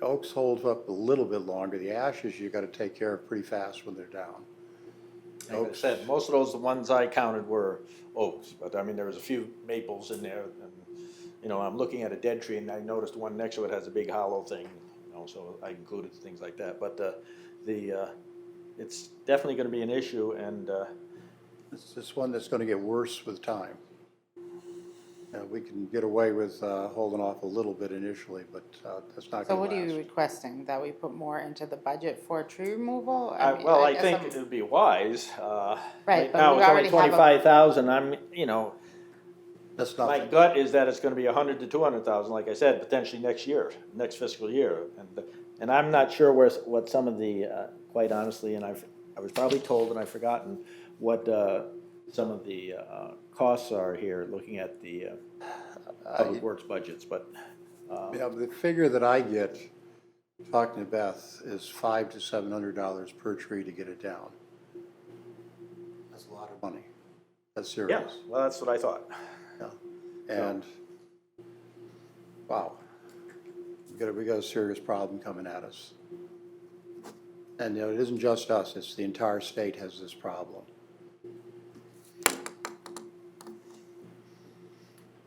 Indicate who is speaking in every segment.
Speaker 1: oaks hold up a little bit longer. The ashes, you gotta take care of pretty fast when they're down.
Speaker 2: Like I
Speaker 1: Oaks.
Speaker 2: said, most of those, the ones I counted were oaks, but I mean, there was a few maples in there. and You know, I'm looking at a dead tree and I noticed one next to it has a big hollow thing, you know, so I included things like that. But uh, the, uh, it's definitely gonna be an issue and uh,
Speaker 1: It's just one that's gonna get worse with time. Uh, we can get away with, uh, holding off a little bit initially, but, uh, that's not
Speaker 3: So
Speaker 1: gonna
Speaker 3: what
Speaker 1: last.
Speaker 3: are you requesting, that we put more into the budget for tree removal?
Speaker 2: I,
Speaker 3: mean,
Speaker 2: well, I
Speaker 3: guess
Speaker 2: think
Speaker 3: I'm-
Speaker 2: it'd be wise. uh,
Speaker 3: Right, but
Speaker 2: now
Speaker 3: we
Speaker 2: it's
Speaker 3: already
Speaker 2: only
Speaker 3: have a-
Speaker 2: twenty-five thousand, I'm, you know,
Speaker 1: That's
Speaker 2: my
Speaker 1: nothing.
Speaker 2: gut is that it's gonna be a hundred to two hundred thousand, like I said, potentially next year, next fiscal year. And, and I'm not sure where, s- what some of the, uh, quite honestly, and I've, I was probably told and I've forgotten what, uh, some of the, uh, costs are here, looking at the, uh, public works budgets, but,
Speaker 1: Yeah, but the figure that I get, talking to Beth, is five to seven hundred dollars per tree to get it down. That's a lot of money. That's
Speaker 2: yeah,
Speaker 1: serious.
Speaker 2: well, that's what I thought.
Speaker 1: Yeah. And, wow, we got, a- we got a serious problem coming at us. And, you know, it isn't just us, it's the entire state has this problem.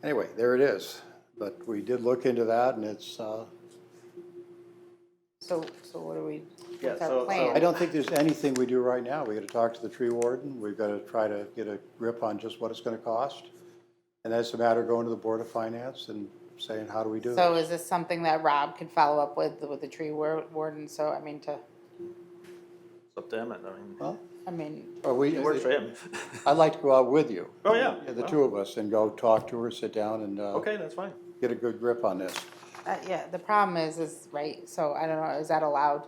Speaker 1: Anyway, there it is, but we did look into that and it's, uh,
Speaker 3: So, so what do we,
Speaker 2: Yeah,
Speaker 3: what's
Speaker 2: so-
Speaker 3: our
Speaker 2: so-
Speaker 1: I
Speaker 3: plan?
Speaker 1: don't think there's anything we do right now. We gotta talk to the tree warden, we've gotta try to get a grip on just what it's gonna cost. And that's a matter of going to the Board of Finance and saying, how do we do it?
Speaker 3: So is this something that Rob could follow up with, with the tree war- warden, so, I mean, to,
Speaker 2: It's up to him, and I mean,
Speaker 1: Well,
Speaker 3: I mean,
Speaker 1: are we,
Speaker 2: it works for him.
Speaker 1: I'd like to go out with you.
Speaker 2: Oh, yeah.
Speaker 1: The two of us and go talk to her, sit down and, uh,
Speaker 2: Okay, that's fine.
Speaker 1: get a good grip on this.
Speaker 3: uh, yeah, the problem is, is, right, so I don't know, is that allowed?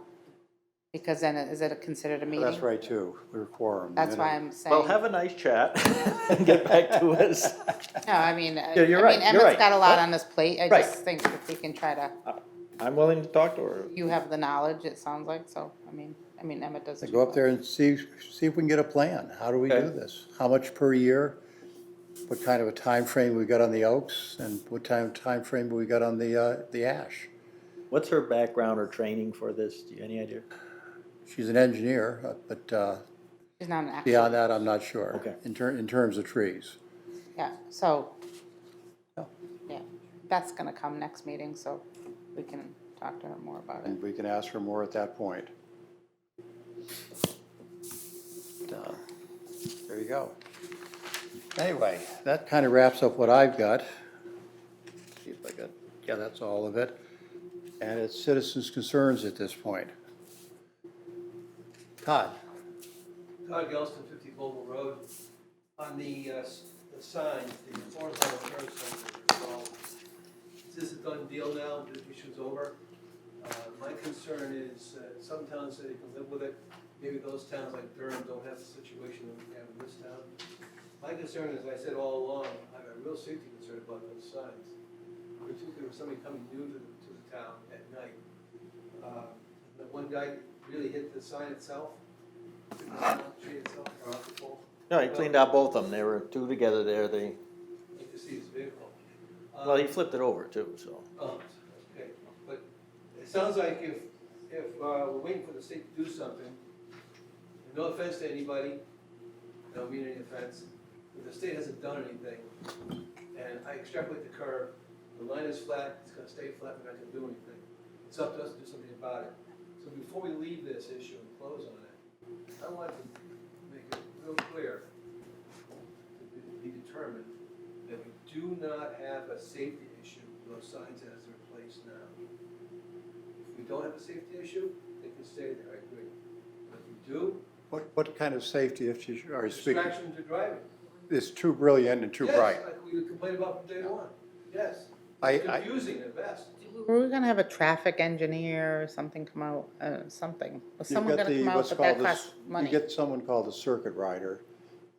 Speaker 3: Because then, is it considered a meeting?
Speaker 1: That's right too, we're quorum.
Speaker 3: That's
Speaker 1: And
Speaker 3: why I'm saying.
Speaker 2: Well, have a nice chat and get back to us.
Speaker 3: No, I mean, uh, I I
Speaker 2: Yeah,
Speaker 3: mean,
Speaker 2: you're right, you're
Speaker 3: Emmett's
Speaker 2: right.
Speaker 3: got a lot on his plate, I
Speaker 2: Right.
Speaker 3: just think if we can try to,
Speaker 2: I'm willing to talk to her.
Speaker 3: you have the knowledge, it sounds like, so, I mean, I mean, Emmett does.
Speaker 1: to
Speaker 3: too,
Speaker 1: Go up
Speaker 3: but-
Speaker 1: there and see, see if we can get a plan. How do we do
Speaker 2: Okay.
Speaker 1: this? How much per year? What kind of a time frame we got on the Oaks and what time, timeframe we got on the, uh, the Ash?
Speaker 2: What's her background or training for this? Do you have any idea?
Speaker 1: She's an engineer, uh, but, uh,
Speaker 3: He's not an actor,
Speaker 1: beyond that, I'm not sure.
Speaker 2: Okay.
Speaker 1: In ter, in terms of trees.
Speaker 3: yeah, so,
Speaker 1: Yeah.
Speaker 3: yeah, that's gonna come next meeting, so we can talk to her more about it.
Speaker 1: And we can ask for more at that point. Uh, There you go. Anyway, that kind of wraps up what I've got. See if I got, yeah, that's all of it. And it's citizens' concerns at this point. Todd,
Speaker 4: Todd Gelston, 50 Global Road. On the, uh, s- the sign, the horizontal turn sign that you're called, is this a done deal now, the issue's over? Uh, My concern is, uh, some towns say they can live with it, maybe those towns like Durham don't have the situation that we have in this town. My concern is, I said all along, I have a real safety concern about those signs, particularly with somebody coming new to, the- to the town at night. Uh, That one guy really hit the sign itself, Tree itself, or off the pole,
Speaker 2: No, he cleaned out both of them. They were two together there. They,
Speaker 4: like to see his vehicle. Um,
Speaker 2: well, he flipped it over too, so.
Speaker 4: Oh, okay, but it sounds like if, if, uh, we're waiting for the state to do something, and no offense to anybody, I don't mean any offense, but the state hasn't done anything, and I extrapolate the curve, the line is flat, it's gonna stay flat, we're not gonna do anything. It's up to us to do something about it. So before we leave this issue and close on it, I want to make it real clear, to be determined, that we do not have a safety issue with those signs as they're placed now. If we don't have a safety issue, they can stay there, I agree. But if we do,
Speaker 1: what, what kind of safety issues are you speaking?
Speaker 4: distraction to driving.
Speaker 1: It's too brilliant and too
Speaker 4: Yes,
Speaker 1: bright.
Speaker 4: like we complained about from day one, yes.
Speaker 1: I,
Speaker 4: It's
Speaker 1: I,
Speaker 4: Confusing at best.
Speaker 3: Were we gonna have a traffic engineer or something come out, uh, something? Was
Speaker 1: You've
Speaker 3: someone
Speaker 1: got
Speaker 3: gonna
Speaker 1: the,
Speaker 3: come out,
Speaker 1: what's
Speaker 3: but that
Speaker 1: called this,
Speaker 3: costs
Speaker 1: you
Speaker 3: money?
Speaker 1: get someone called the circuit rider,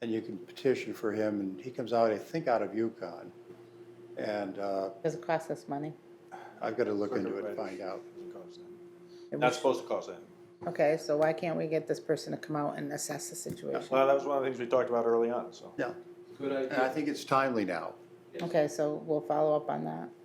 Speaker 1: and you can petition for him, and he comes out, I think, out of Yukon. And uh,
Speaker 3: Does it cost us money?
Speaker 1: I've got to look into it
Speaker 2: Circuit
Speaker 1: and
Speaker 2: rider.
Speaker 1: find out.
Speaker 3: It
Speaker 2: Not
Speaker 3: was-
Speaker 2: supposed to cause that.
Speaker 3: Okay, so why can't we get this person to come out and assess the situation?
Speaker 2: Well, that was one of the things we talked about early on, so.
Speaker 1: Yeah,
Speaker 4: Good
Speaker 1: and I
Speaker 4: idea.
Speaker 1: think it's timely now.
Speaker 3: Okay, so we'll follow up on that.